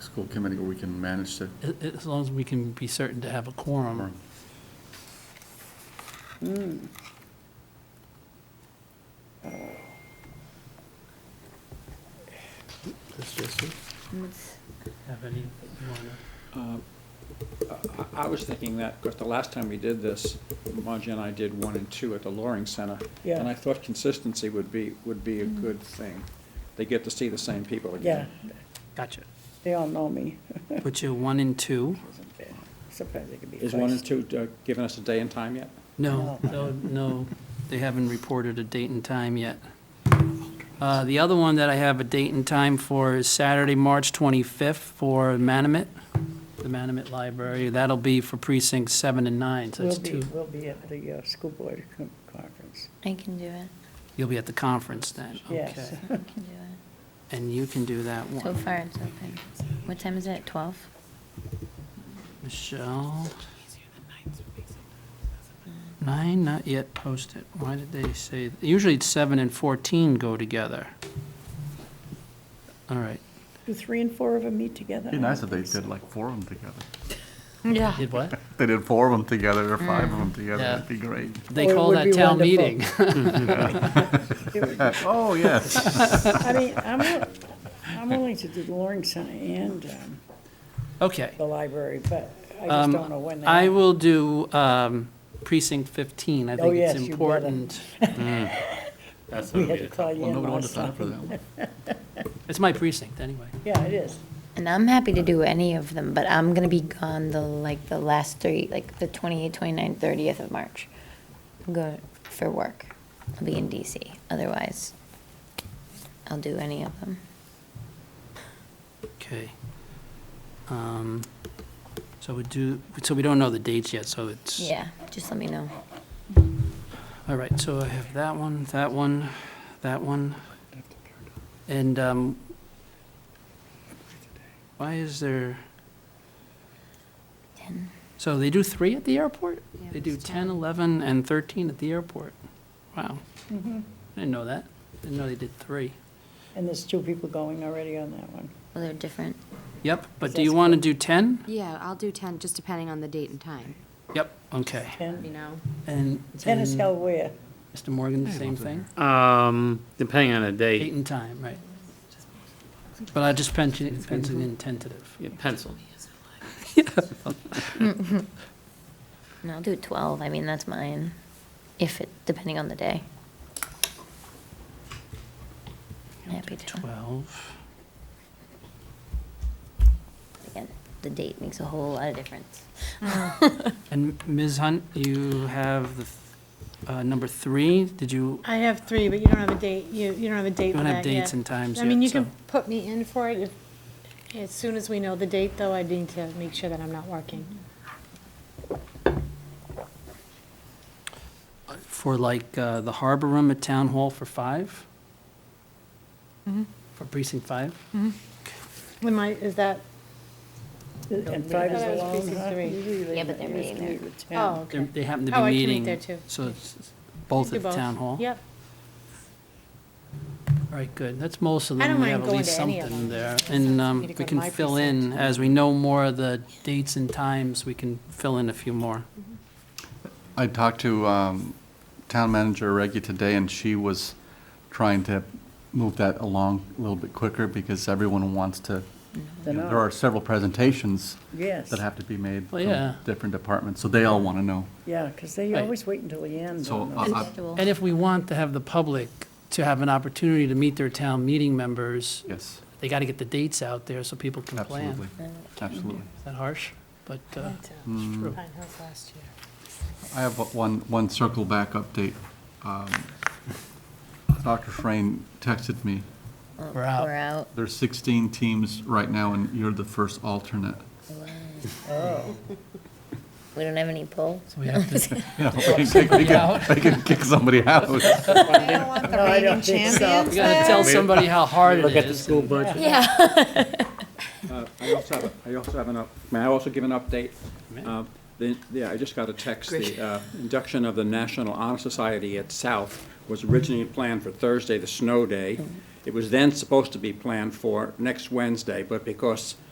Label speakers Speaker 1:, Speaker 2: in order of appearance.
Speaker 1: school committee where we can manage to,
Speaker 2: a- as long as we can be certain to have a quorum.
Speaker 3: That's just it.
Speaker 2: Have any, you wanna-
Speaker 4: I- I was thinking that, because the last time we did this, Margie and I did one and two at the Loring Center.
Speaker 5: Yeah. Mm-hmm.
Speaker 4: And I thought consistency would be, would be a good thing. They get to see the same people
Speaker 5: Yeah,
Speaker 4: again.
Speaker 2: gotcha.
Speaker 5: they all know me.
Speaker 2: Put you one and two.
Speaker 5: Surprised they could be
Speaker 4: Is one and
Speaker 5: first.
Speaker 4: two uh, giving us a day and time yet?
Speaker 2: No, no, no, they haven't reported a date and time yet. Uh, The other one that I have a date and time for is Saturday, March 25th for Manamet, the Manamet Library. That'll be for precincts seven and nine, so that's
Speaker 5: We'll be,
Speaker 2: two.
Speaker 5: we'll be at the uh, school board con- conference.
Speaker 6: I can do it.
Speaker 2: You'll be at the conference then,
Speaker 5: Yes.
Speaker 2: okay.
Speaker 6: I can do it.
Speaker 2: And you can do that
Speaker 6: So
Speaker 2: one.
Speaker 6: far, it's open. What time is it? Twelve?
Speaker 2: Michelle? Nine, not yet posted. Why did they say, usually it's seven and 14 go together. All right,
Speaker 5: Do three and four of them meet together?
Speaker 1: it'd be nice if they did like four of them together.
Speaker 6: Yeah.
Speaker 2: did what?
Speaker 1: If They did four of them together or five
Speaker 5: Mm.
Speaker 1: of them together,
Speaker 2: Yeah.
Speaker 1: that'd be great.
Speaker 2: They
Speaker 5: Or it
Speaker 2: call
Speaker 5: would
Speaker 2: that
Speaker 5: be
Speaker 2: town
Speaker 5: wonderful.
Speaker 2: meeting.
Speaker 5: It-
Speaker 1: Oh, yes.
Speaker 5: I mean, I'm, wi- I'm willing to do the Loring Center and um,
Speaker 2: Okay.
Speaker 5: the library, but I just
Speaker 2: Um,
Speaker 5: don't know when they.
Speaker 2: I will do um, precinct 15. I
Speaker 5: Oh,
Speaker 2: think it's
Speaker 5: yes, you better.
Speaker 2: important.
Speaker 1: That's
Speaker 5: We had to call you
Speaker 1: Well,
Speaker 5: in
Speaker 1: nobody wanted to
Speaker 5: last
Speaker 1: sign
Speaker 5: time.
Speaker 1: up for that one.
Speaker 2: It's my precinct, anyway.
Speaker 5: Yeah, it is.
Speaker 6: And I'm happy to do any of them, but I'm gonna be gone the, like, the last three, like, the 28th, 29th, 30th of March. I'm going for work. I'll be in DC. Otherwise, I'll do any of them.
Speaker 2: Okay. Um, So we do, so we don't know the dates yet, so it's.
Speaker 6: Yeah, just let me know.
Speaker 2: All right, so I have that one, that one, that one. And um, why is there,
Speaker 6: 10.
Speaker 2: so they do three at the airport?
Speaker 6: Yeah,
Speaker 2: They do
Speaker 6: it's
Speaker 2: 10, 11, and 13 at the airport. Wow.
Speaker 6: Mm-hmm.
Speaker 2: I didn't know that. Didn't know they did three.
Speaker 5: And there's two people going already on that one.
Speaker 6: Well, they're different.
Speaker 2: Yep, but do
Speaker 5: That's
Speaker 2: you want to
Speaker 5: cool.
Speaker 2: do 10?
Speaker 7: Yeah, I'll do 10, just depending on the date and time,
Speaker 2: Yep, okay.
Speaker 7: you
Speaker 5: Ten,
Speaker 7: know?
Speaker 2: And
Speaker 5: ten is
Speaker 2: and
Speaker 5: held where?
Speaker 2: Mr. Morgan, the same thing?
Speaker 3: Um, depending on the
Speaker 2: Eight
Speaker 3: date,
Speaker 2: and time, right. But I just pencil pencil in tentative.
Speaker 3: yeah, pencil.
Speaker 6: No, I'll do 12. I mean, that's mine, if it, depending on the day. Happy to.
Speaker 2: 12.
Speaker 6: Again, the date makes a whole lot of difference.
Speaker 2: And Ms. Hunt, you have the, th- uh, number three, did you,
Speaker 8: I have three, but you don't have a date, you, you don't have a date
Speaker 2: you
Speaker 8: for
Speaker 2: don't
Speaker 8: that
Speaker 2: have dates
Speaker 8: yet.
Speaker 2: and times
Speaker 8: I mean, you
Speaker 2: yet, so.
Speaker 8: can put me in for it if, as soon as we know the date, though, I need to make sure that I'm not working.
Speaker 2: For like, uh, the harbor room at Town Hall for five?
Speaker 8: Mm-hmm.
Speaker 2: For precinct five?
Speaker 8: Am I, is that,
Speaker 5: And five is
Speaker 8: That was
Speaker 5: alone,
Speaker 8: precinct
Speaker 5: huh?
Speaker 8: three.
Speaker 5: Usually they-
Speaker 6: Yeah, but they're
Speaker 5: they used to
Speaker 6: meeting
Speaker 5: meet with ten.
Speaker 8: oh,
Speaker 2: They're-
Speaker 8: okay.
Speaker 2: They happen to be
Speaker 8: Oh, I can
Speaker 2: meeting.
Speaker 8: meet there too.
Speaker 2: So it's it's both
Speaker 8: Do
Speaker 2: at the Town Hall?
Speaker 8: Yep,
Speaker 2: All right, good. That's most of
Speaker 8: I
Speaker 2: them.
Speaker 8: don't
Speaker 2: We
Speaker 8: mind
Speaker 2: have at
Speaker 8: going
Speaker 2: least
Speaker 8: to any of
Speaker 2: something
Speaker 8: them.
Speaker 2: there.
Speaker 8: It's up
Speaker 2: And
Speaker 8: to
Speaker 2: um,
Speaker 8: me to go
Speaker 2: we
Speaker 8: to
Speaker 2: can
Speaker 8: my
Speaker 2: fill in,
Speaker 8: precinct.
Speaker 2: as we know more of the dates and times, we can fill in a few more.
Speaker 1: I talked to um, Town Manager Reggie today, and she was trying to move that along a little bit quicker because everyone wants to, you know, there are several presentations
Speaker 5: Yes,
Speaker 1: that have to be made
Speaker 2: Well,
Speaker 1: from
Speaker 2: yeah.
Speaker 1: different departments, so they all want to know.
Speaker 5: yeah, because they
Speaker 2: Right.
Speaker 5: always wait until the end.
Speaker 1: So uh,
Speaker 5: on
Speaker 1: I-
Speaker 5: those.
Speaker 1: I-
Speaker 6: Schedule.
Speaker 2: And if we want to have the public to have an opportunity to meet their town meeting members,
Speaker 1: Yes,
Speaker 2: they got to get the dates out there so people can plan.
Speaker 1: absolutely, absolutely.
Speaker 2: Is that harsh? But uh,
Speaker 8: That's, uh,
Speaker 2: it's true.
Speaker 8: Pine Hills last year.
Speaker 1: I have one, one circle back update. Um, Dr. Frayne texted me,
Speaker 2: We're out.
Speaker 6: Um, We're out.
Speaker 1: there's 16 teams right now, and you're the first alternate.
Speaker 6: We don't have any poll.
Speaker 2: So we have to,
Speaker 1: Yeah, we can- we can- we can kick somebody out.
Speaker 5: No, I don't think so.
Speaker 2: we got to tell somebody how hard it is.
Speaker 3: Look at the school budget.
Speaker 6: Yeah.
Speaker 4: Uh, I also have, a- I also have an, up- may I also give an update? Uh, the- Yeah, I just got a text, the uh, induction of the National Honor Society at South was originally planned for
Speaker 5: Mm-hmm.
Speaker 4: Thursday, the snow day. It was then supposed to be planned for next Wednesday, but because